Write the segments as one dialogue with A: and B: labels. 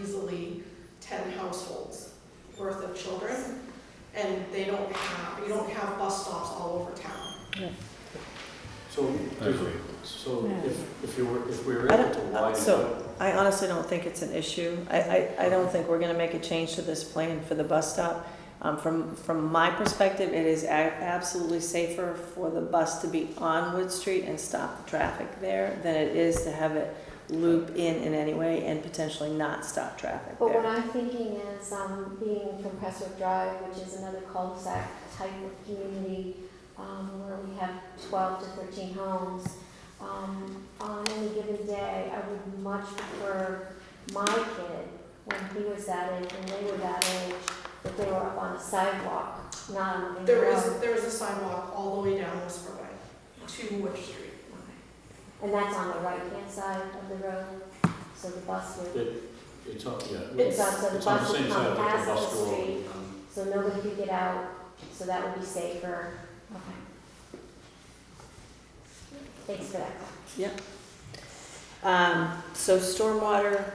A: easily ten households worth of children. And they don't have, you don't have bus stops all over town.
B: So,
C: I
B: there's-
C: agree.
B: so
D: Yeah.
B: if, if you were, if we were
D: I
B: able
D: don't-
B: to
D: uh,
B: widen it
D: so-
B: up,
D: I honestly don't think it's an issue. I, I, I don't think we're gonna make a change to this plan for the bus stop. Um, from, from my perspective, it is a- absolutely safer for the bus to be on Wood Street and stop the traffic there than it is to have it loop in in any way and potentially not stop traffic
E: But what
D: there.
E: I'm thinking is, um, being from Crestwood Drive, which is another cul-de-sac type of community, um, where we have twelve to thirteen homes, um, on any given day, I would much prefer my kid, when he was that age and they were that age, that they were up on a sidewalk, not on the main
A: There is,
E: road.
A: there is a sidewalk all the way down Whisper Way to Wood Street.
E: And that's on the right-hand side of the road, so the bus would,
B: it's on, yeah.
A: It's-
E: it's on, so the
B: It's on the
E: bus would
B: same side
E: come
B: like
E: past
B: the
E: the
B: bus
E: street.
B: go. um,
E: So nobody could get out, so that would be safer. Okay. Thanks for that.
F: Um, so stormwater,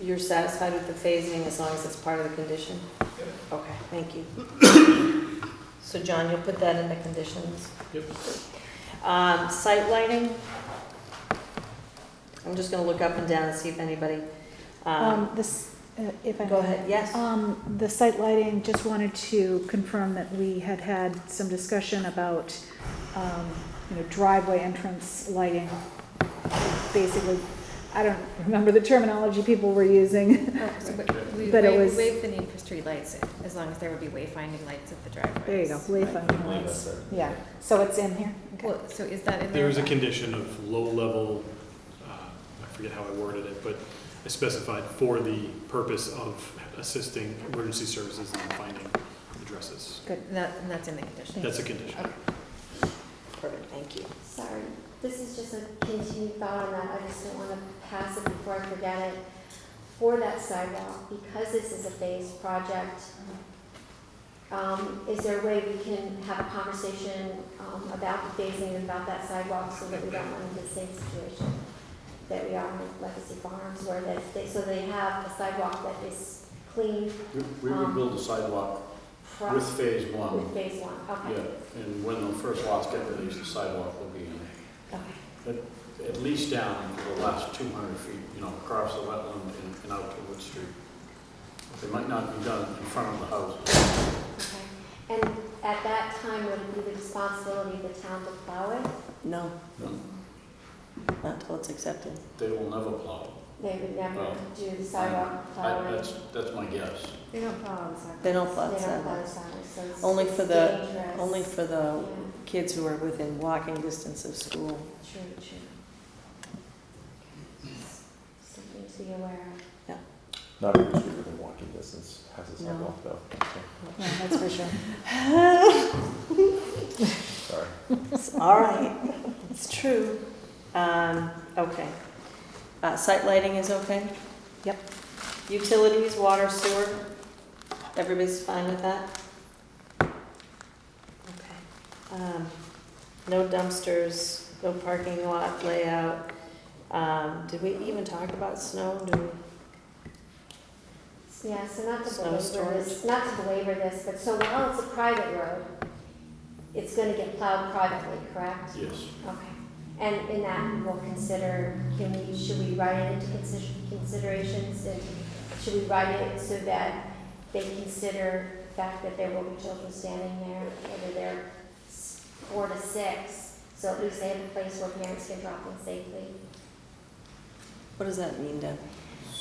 F: you're satisfied with the phasing as long as it's part of the condition? Okay, thank you. So John, you'll put that in the conditions?
B: Yep.
F: Um, site lighting? I'm just gonna look up and down and see if anybody, um,
G: Um, this, uh, if I
F: go
G: may.
F: ahead, yes?
G: Um, the site lighting, just wanted to confirm that we had had some discussion about, um, you know, driveway entrance lighting. Basically, I don't remember the terminology people were using.
H: Oh, so we- We
G: But it
H: wa- we
G: was-
H: waive the need for streetlights as long as there would be wayfinding lights at the driveways.
G: There you go,
B: I
G: wayfinding
B: believe
G: lights.
B: that's it.
G: Yeah, so it's in here, okay.
H: Well, so is that in there?
C: There is a condition of low-level, uh, I forget how I worded it, but I specified for the purpose of assisting emergency services in finding addresses.
H: And that- and that's in the condition.
C: That's a condition.
F: Perfect, thank you.
E: Sorry, this is just a continued thought on that, I just don't wanna pass it before I forget it. For that sidewalk, because this is a phased project, um, is there a way we can have a conversation, um, about the phasing and about that sidewalk so that we don't run into the same situation that we are with Legacy Farms where they, they, so they have a sidewalk that is clean
B: We we would build a sidewalk
E: Um, from,
B: with
E: with
B: phase one,
E: phase one,
B: yeah,
E: okay,
B: and when the first lots get released, the sidewalk will be in,
E: okay.
B: at least down to the last two hundred feet, you know, across the wetland and, and out to Wood Street. They might not be done in front of the house.
E: Okay, And at that time, would it be the responsibility of the town to plow it?
D: No,
B: No,
D: not until it's accepted.
B: They will never plow.
E: They would never
B: Well,
E: do the sidewalk
B: I,
E: plowing.
B: that's, that's my guess.
H: They don't follow the sidewalk.
D: They don't plow
E: They
D: the
E: don't plow the
D: sidewalks,
E: sidewalk, so it's
D: Only for
E: it's
D: the-
E: dangerous.
D: only for
E: Yeah,
D: the kids who are within walking distance of school.
E: true, true. Something to be aware of.
I: Not every street within walking distance has a
D: No.
I: sidewalk though,
G: Yeah, that's for sure.
I: sorry.
F: All right, it's true. Um, okay.
D: Uh, site lighting is okay?
G: Yep.
D: Utilities, water, sewer, everybody's fine with that?
F: Okay. Um, No dumpsters, no parking lot layout. Um, Did we even talk about snow? Do we?
E: Yeah, so not to
F: Snow
E: belabor
F: storage.
E: this, not to belabor this, but so while it's a private road, it's gonna get plowed privately, correct?
B: Yes.
E: Okay, and in that, we'll consider, can we, should we write it into consi- considerations? And should we write it so that they consider the fact that there will be children standing there, whether they're s- four to six? So at least they have a place where parents can drop them safely.
D: What does that mean, Deb?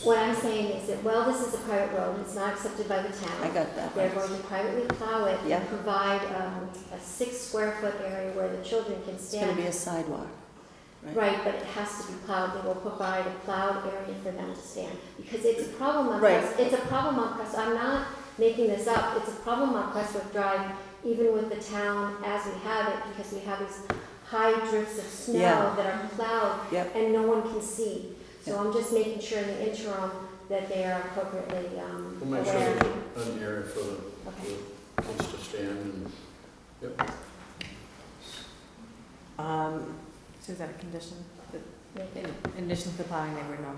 E: What I'm saying is that, well, this is a private road, it's not accepted by the
D: I
E: town.
D: got that.
E: They're going to privately plow it
D: Yeah.
E: and provide um, a six square foot area where the children can
D: It's gonna
E: stand.
D: be a sidewalk.
E: Right, but it has to be plowed, they will provide a plowed area for them to stand, because it's a problem on
D: Right.
E: Crest, it's a problem on Crest, I'm not making this up, it's a problem on Crestwood Drive, even with the town as we have it, because we have these high drifts of
D: Yeah.
E: snow that are plowed,
D: Yep.
E: and no one can see. So I'm just making sure in the interim that they are appropriately, um,
B: We'll make sure
E: aware.
B: there's an area for the,
E: Okay.
B: for kids to stand and, yep.
F: Um,
H: So is that a condition? that-
D: Um,
E: Make it-
H: In in addition to the plowing, they were no